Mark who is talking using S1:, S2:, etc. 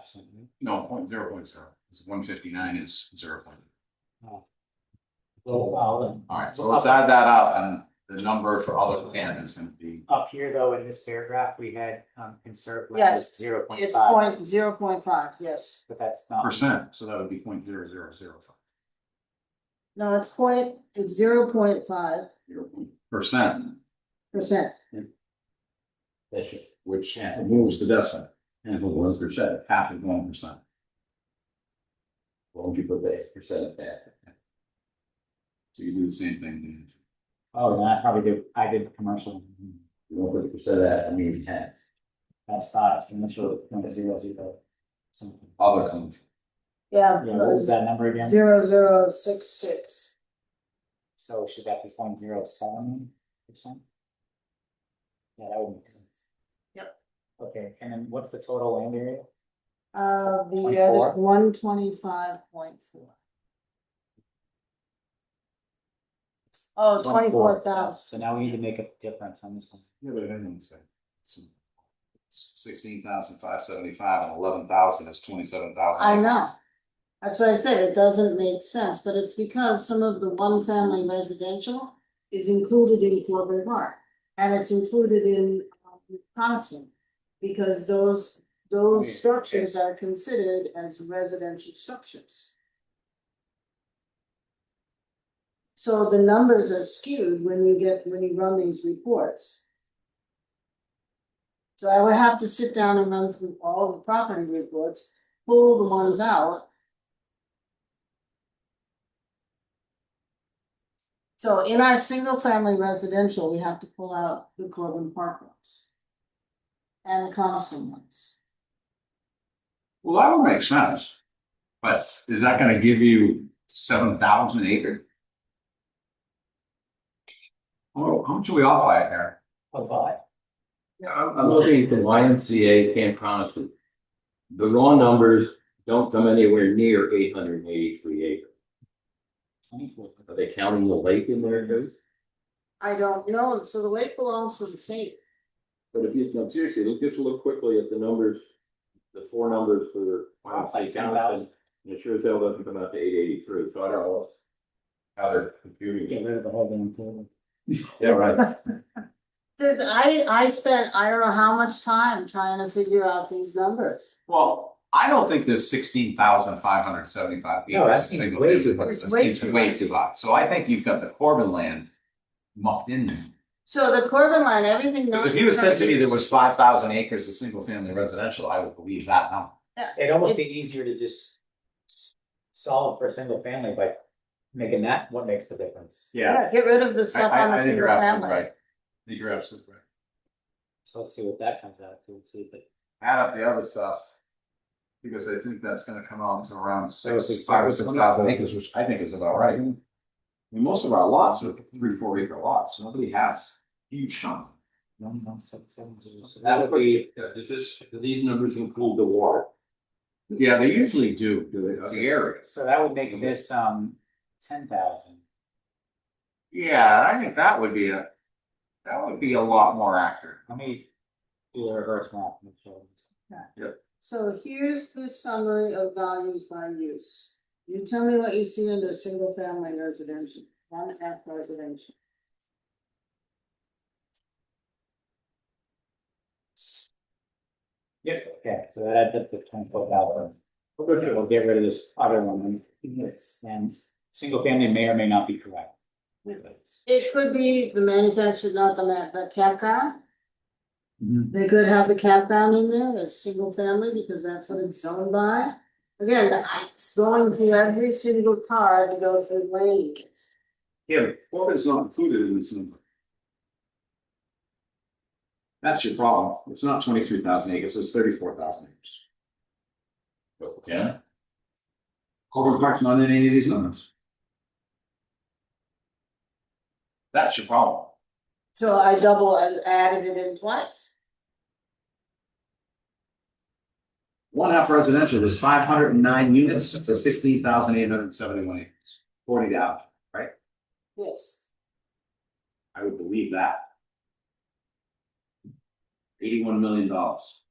S1: percent.
S2: No, point zero point zero, it's one fifty-nine is zero point.
S1: Little out and
S2: All right, so let's add that up and the number for other plan is gonna be,
S1: up here though, in this paragraph, we had um conserve land
S3: Yes,
S1: is zero point
S3: It's
S1: five,
S3: point zero point five, yes.
S1: but that's not.
S2: percent, so that would be point zero zero zero five.
S3: No, it's point, it's zero point five
S2: Zero point Percent,
S3: percent.
S2: which moves the decimal, and if it was percent, half of one percent.
S4: Won't you put that percent back?
S2: So you do the same thing.
S1: Oh, then I probably did, I did commercial,
S4: You won't put the percent that, I mean, ten.
S1: that's five, and that's really point zero zero. Something,
S2: Other country,
S3: Yeah,
S1: yeah, what was that number again?
S3: zero zero six six.
S1: So should that be point zero seven percent? Yeah, that would make sense.
S3: Yep.
S1: Okay, and then what's the total land area?
S3: Uh, the
S1: 24?
S3: other one twenty five point four. Oh, twenty four thousand.
S1: So now we need to make a difference on this one.
S2: yeah, but I don't say. Sixteen thousand five seventy-five and eleven thousand is twenty-seven thousand.
S3: I know. That's why I said it doesn't make sense, but it's because some of the one family residential is included in Corbin Park. And it's included in um, Coniston, because those,
S1: Yeah.
S3: those structures are considered as residential structures. So the numbers are skewed when you get, when you run these reports. So I would have to sit down and run through all the property reports pull the ones out. So in our single family residential, we have to pull out the Corbin Park ones. And the Coniston ones.
S2: Well, that would make sense. But is that gonna give you seven thousand acre? Oh, how much are we off by here?
S1: Oh, but.
S2: Yeah, I'm,
S4: I'm looking at the YMCA Camp Coniston. The raw numbers don't come anywhere near eight hundred and eighty-three acres.
S1: Twenty-four.
S4: Are they counting the lake in there too?
S3: I don't know, so the lake belongs to the state.
S4: But if you, no, seriously, look, just look quickly at the numbers, the four numbers for
S1: Wow,
S4: YMCA
S1: like 10,000.
S4: Coniston. And it sure as hell doesn't come out to eight eighty-three, so I don't know how they're computing.
S1: Get
S4: it.
S1: rid of the whole damn thing.
S4: Yeah, right.
S3: Dude, I, I spent, I don't know how much time trying to figure out these numbers.
S2: well, I don't think there's sixteen thousand five hundred seventy-five.
S4: No, that seems way too much.
S3: It's way too
S2: Way
S3: much.
S2: too high. So I think you've got the Corbin land mucked in there.
S3: So the Corbin line, everything.
S2: Because if
S3: known
S2: you had said
S3: for
S2: to me there was
S3: years-
S2: five thousand acres of single family residential, I would believe that now.
S1: It'd almost be easier to just s- solve for single family by making that what makes the difference.
S3: Yeah, get rid of the
S2: I,
S3: stuff on
S2: I,
S3: the
S2: I think
S3: single
S2: you're absolutely
S3: family.
S2: right. I think you're absolutely right.
S1: So let's see what that comes out to, let's see if it.
S2: add up the other stuff. Because I think that's gonna come out to
S1: if
S2: around
S1: we
S2: six,
S1: start
S2: five,
S1: with
S2: six
S1: one-
S2: thousand acres, which I think is about right. I mean, most of our lots are three, four acre lots, nobody has huge chunk.
S1: One, one, seven, seven, zero, seven.
S4: That would be, does this, do these numbers include the water?
S2: Yeah, they usually do, do it, the areas.
S1: So that would make this um ten thousand.
S2: Yeah, I think that would be a, that would be a lot more accurate.
S1: Let me do a reverse map. make sure it's-
S3: So here's the summary of values by use. You tell me what you see under single family residential, one F residential.
S1: Yep, okay, so that adds up to twenty-four thousand.
S4: Oh,
S1: We'll get rid of this other one, and- and single family may or may not be correct.
S3: It could be the manufactured, not the ma- the campground.
S2: Mm-hmm.
S3: They could have the campground in there as single family because that's what it's zoned by. Again, I- it's going through every single car to go through lanes.
S2: Yeah, but Corbin's not included in this number. That's your problem, it's not twenty-three thousand acres, it's thirty-four thousand acres.
S4: Yeah.
S2: Corbin Park's not in any of these numbers. That's your problem.
S3: So I double, I added it in twice.
S2: One half residential is five hundred and nine units for fifteen thousand eight hundred and seventy-one acres, forty thousand.
S3: Yes.
S2: I would believe that. Eighty-one million dollars.